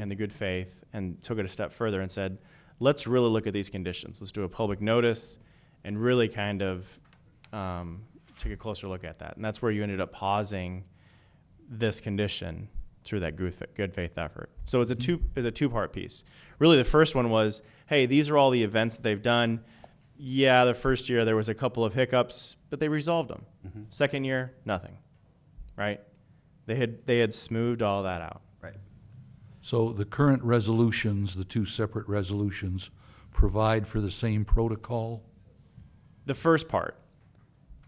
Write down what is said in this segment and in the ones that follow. and the good faith and took it a step further and said, let's really look at these conditions. Let's do a public notice and really kind of um, take a closer look at that. And that's where you ended up pausing this condition through that good fa- good faith effort. So it's a two it's a two part piece. Really, the first one was, hey, these are all the events that they've done. Yeah, the first year there was a couple of hiccups, but they resolved them. Second year, nothing. Right? They had they had smoothed all that out. Right. So the current resolutions, the two separate resolutions, provide for the same protocol? The first part,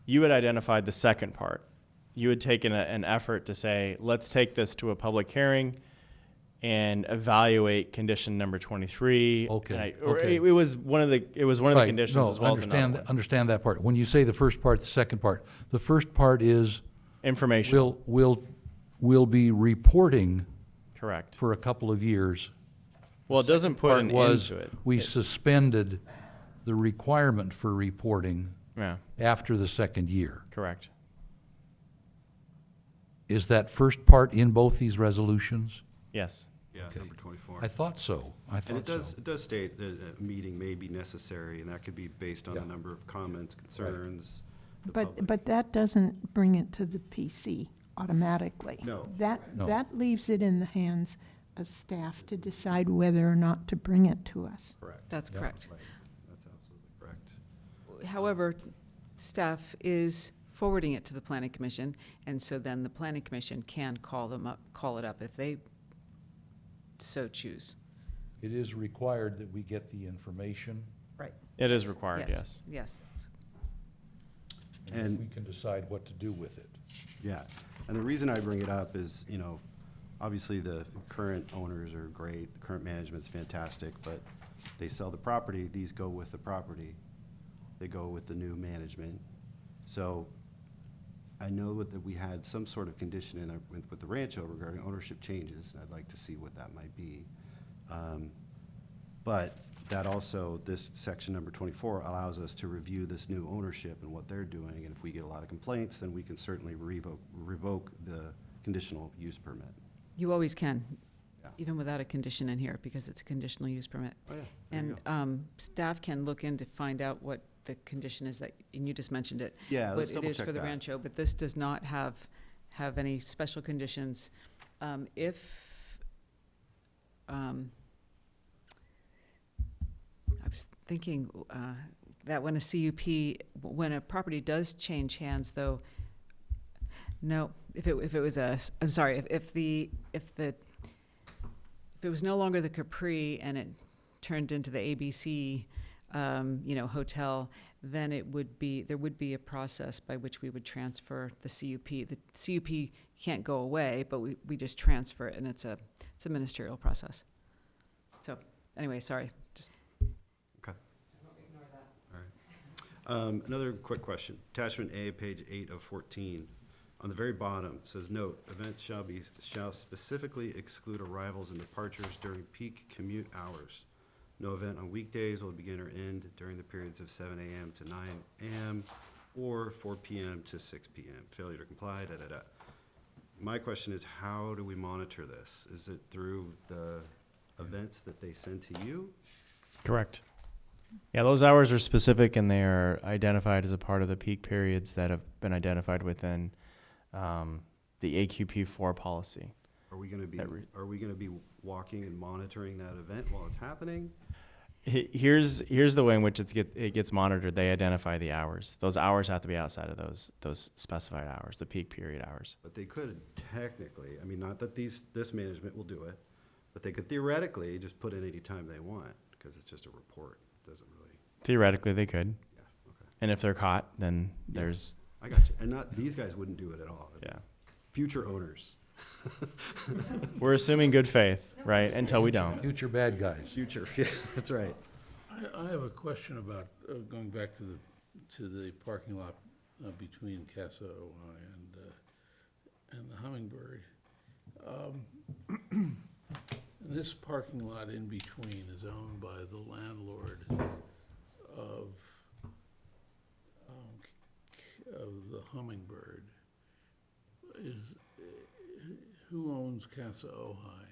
you had identified the second part. You had taken a, an effort to say, let's take this to a public hearing and evaluate condition number 23. Okay, And I- or okay. It, it was one of the it was one of the Right, conditions no, as well as understand, another one. understand that part. When you say the first part, the second part, the first part is information. we'll, we'll, we'll be reporting Correct. for a couple of years. Well, it doesn't put Part an was, end to it. we suspended the requirement for reporting Yeah, after the second year. correct. Is that first part in both these resolutions? Yes. Yeah, number twenty-four. I thought so. I And thought it does, so. it does state that a meeting may be necessary, and that could be based on the number of comments, concerns. the But, public- but that doesn't bring it to the PC automatically. No. That, No. that leaves it in the hands of staff to decide whether or not to bring it to us. Correct, That's correct. right, that's absolutely correct. However, staff is forwarding it to the planning commission, and so then the planning commission can call them up, call it up if they so choose. It is required that we get the information. Right. It is required, yes. Yes, that's- And- we can decide what to do with it. Yeah, and the reason I bring it up is, you know, obviously the current owners are great, the current management's fantastic, but they sell the property, these go with the property, they go with the new management. So I know that we had some sort of condition in, our- with, with the Rancho regarding ownership changes, and I'd like to see what that might be. Um, But that also, this section number twenty-four allows us to review this new ownership and what they're doing. And if we get a lot of complaints, then we can certainly revoke, revoke the conditional use permit. you always can, Yeah. even without a condition in here, because it's a conditional use permit. Oh, yeah. there you And go. um, staff can look in to find out what the condition is that, and you just mentioned it. Yeah, let's What it is double-check for the that. Rancho, but this does not have, have any special conditions. Um, If, um, I was thinking uh, that when a CUP, when a property does change hands, though, no, if it, if it was a, s- I'm sorry, if, if the, if the, if it was no longer the Capri and it turned into the ABC, um, you know, hotel, then it would be, there would be a process by which we would transfer the CUP. The CUP can't go away, but we, we just transfer it, and it's a, it's a ministerial process. So, anyway, sorry, just Um, Another quick question. Attachment A, page eight of fourteen. On the very bottom, it says, note, events shall be, shall specifically exclude arrivals and departures during peak commute hours. No event on weekdays will begin or end during the periods of seven AM to nine AM or four PM to six PM. Failure to comply, da-da-da. My question is, how do we monitor this? Is it through the events that they send to you? Correct. Yeah, those hours are specific and they are identified as a part of the peak periods that have been identified within um, the AQP four policy. Are we gonna be, That re- are we gonna be walking and monitoring that event while it's happening? He- Here's here's the way in which it's get it gets monitored. They identify the hours. Those hours have to be outside of those those specified hours, the peak period hours. But they could technically, I mean, not that these, this management will do it, but they could theoretically just put in any time they want, because it's just a report, It doesn't really, Theoretically, they could, yeah, okay. and if they're caught, then there's I got you, and not, these guys wouldn't do it at all. yeah. Future owners, We're assuming good faith, right? Until we don't. Future bad guys. future, yeah, that's right. I, I have a question about, uh, going back to the, to the parking lot uh, between Casa Ojai and, uh, and the Hummingbird. Um, This parking lot in between is owned by the landlord of, um, K- of the Hummingbird. Is, who owns Casa Ojai?